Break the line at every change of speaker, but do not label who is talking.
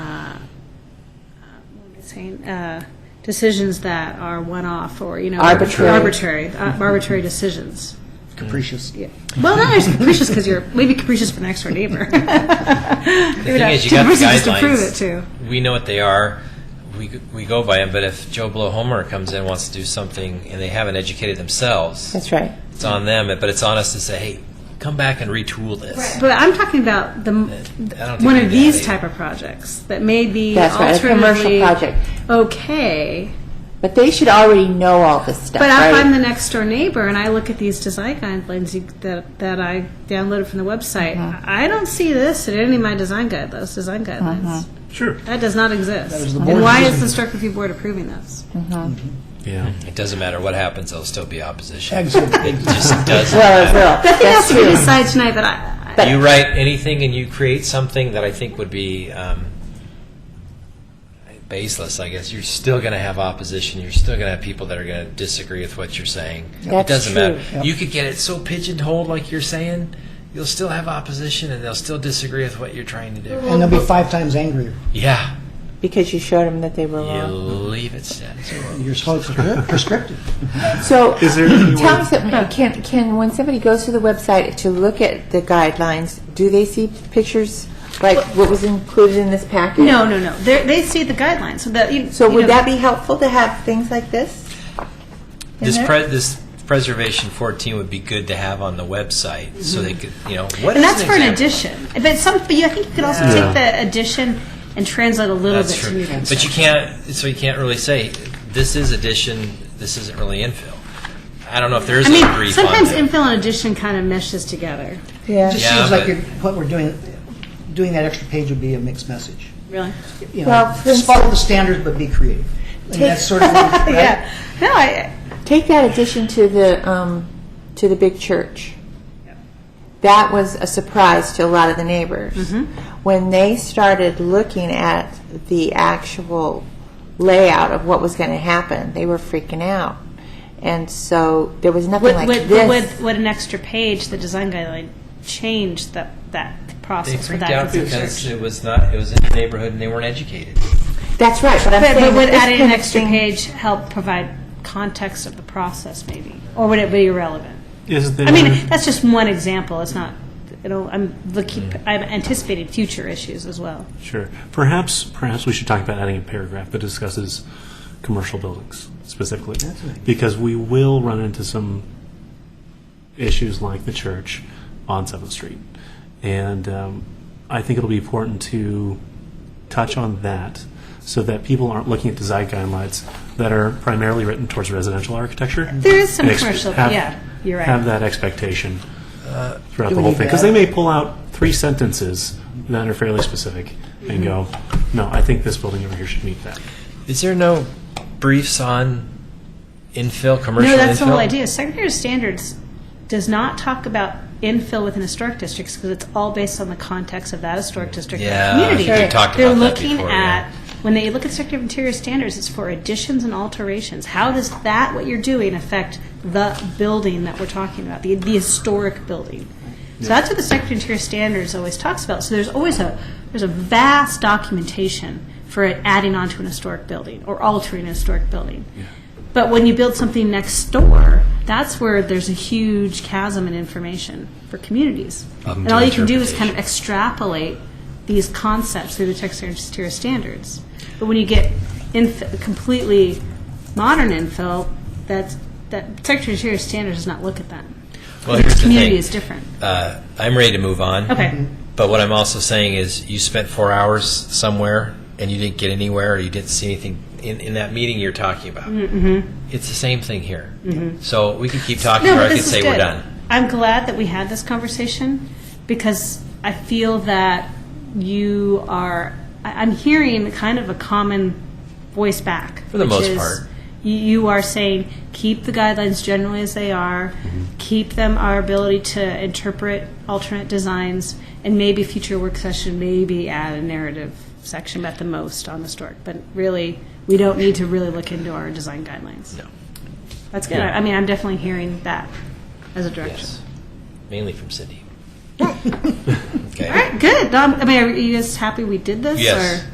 saying, uh, decisions that are one-off or, you know.
Arbitrary.
Arbitrary, uh, arbitrary decisions.
Capricious.
Well, not as capricious because you're, maybe capricious for the next door neighbor. The
The thing is, you got the
To prove it to.
guidelines. We know what they are. We, g- we go by them, but if Joe Blow Homer comes in and wants to do something and they haven't educated themselves,
That's right.
it's on them, but it's on us to say, hey, come back and retool this.
But I'm talking about the,
I don't think
one
we do
of
that
these
either.
type of projects that may be
That's right, a commercial
alternatively
project.
Okay,
But they should already know all this stuff,
but if I'm
right?
the next door neighbor and I look at these design guidelines you- that, that I downloaded from the website,
Uh-huh.
I don't see this in any of my design guidelines, design
Uh-huh.
guidelines.
Sure.
That does not exist.
the
And
board's
why is
decision.
the Historic Review Board approving this?
Yeah.
It doesn't matter what happens, there'll still be opposition.
Exit.
It just doesn't
Well, it
matter.
will.
That thing
That's
has to be
true.
decided tonight, but I,
But-
You write anything and you create something that I think would be um, baseless, I guess. You're still going to have opposition. You're still going to have people that are going to disagree with what you're saying.
That's
it doesn't
true.
matter. You could get it so pigeonholed, like you're saying, you'll still have opposition and they'll still disagree with what you're trying to do.
And they'll be five times angrier.
Yeah.
Because you showed them that they were
You
wrong.
leave it status quo.
You're so prescrip- prescriptive.
So,
Is there any
tell
way-
me something, can, can, when somebody goes to the website to look at the guidelines, do they see pictures, like what was included in this package?
no, no, no. They're, they see the guidelines, so that, you.
So
you know,
would that be helpful to have things like this? in
This,
there?
pre- this preservation 14 would be good to have on the website so they could, you know,
And
what is
that's for an
example?
addition. But some, but you, I think you could also take the addition and translate a little bit
That's
to
true.
new things.
But you can't, so you can't really say, this is addition, this isn't really infill. I don't know if there is
I
a brief on
mean, sometimes
that.
infill and addition kind of meshes together.
It
Yeah,
just
Yeah,
seems
but-
like you're- what we're doing, doing that extra page would be a mixed message.
Really?
You
Well,
know,
for instance-
follow the standards, but be creative. And that's sort of, what- right?
Yeah. No, I,
take that addition to the, um, to the big church. That was a surprise to a lot of the neighbors.
Mm-hmm.
When they started looking at the actual layout of what was going to happen, they were freaking out. And so there was nothing
would,
like
would,
this.
would, would an extra page, the design guideline, change that, that
They
process for
freaked
that
out
computer
because
search?
it was not, it was in the neighborhood and they weren't educated.
That's right, but I'm
But,
saying
but would
that this
adding an
kind of
extra
thing-
page help provide context of the process maybe? Or would it be irrelevant?
Is there?
I mean, that's just one example. It's not, you know, I'm looking, I'm anticipating future issues as well.
Sure. Perhaps, perhaps we should talk about adding a paragraph that discusses commercial buildings specifically.
That's right.
Because we will run into some issues like the church on 7th Street. And um, I think it'll be important to touch on that so that people aren't looking at design guidelines that are primarily written towards residential architecture.
There is some
And ex-
commercial,
have-
yeah, you're right.
Have that expectation throughout
Uh, Do
the
we
whole
need
thing. Because
that?
they may pull out three sentences that are fairly specific and go, no, I think this building over here should meet that.
Is there no briefs on infill, commercial
No,
infill?
that's the whole idea. Secretary of Standards does not talk about infill within historic districts because it's all based on the context of that historic district and
Yeah,
community.
we talked
They're
about that
looking
before,
at
yeah.
when they look at Secretary of Interior Standards, it's for additions and alterations. How does that what you're doing affect the building that we're talking about, the, the historic building? So that's what the Secretary of Interior Standards always talks about. So there's always a there's a vast documentation for adding on to an historic building or altering a historic building. But when you build something next door, that's where there's a huge chasm in information for communities.
Up
and
Um, to
all you can do is kind of
interpretation.
extrapolate these concepts through the text exterior standards. But when you get inf- completely modern infill, that's, that text exterior standards does not look at that.
Well, here's the
community
thing.
is different.
Uh, I'm ready to move on. Mm-hmm.
Okay.
But what I'm also saying is, you spent four hours somewhere and you didn't get anywhere, or you didn't see anything in, in that meeting you're talking about. It's the same thing here. So we could keep talking,
Mm-hmm. No, but
or I could
this is
say we're
good.
done.
I'm glad that we had this conversation because I feel that you are. I- I'm hearing kind of a common voice back
For the
which
most
is
part.
You, you are saying keep the guidelines generally as they are,
Mm-hmm.
keep them our ability to interpret alternate designs, and maybe future work session maybe add a narrative section at the most on the stork. But really, we don't need to really look into our design guidelines.
No.
That's good. I mean, I'm definitely hearing that as a direction.
Yes. Mainly from Cindy.
All
Okay.
right, good. Um, I mean, are you guys happy we did this?
Yes.
Or?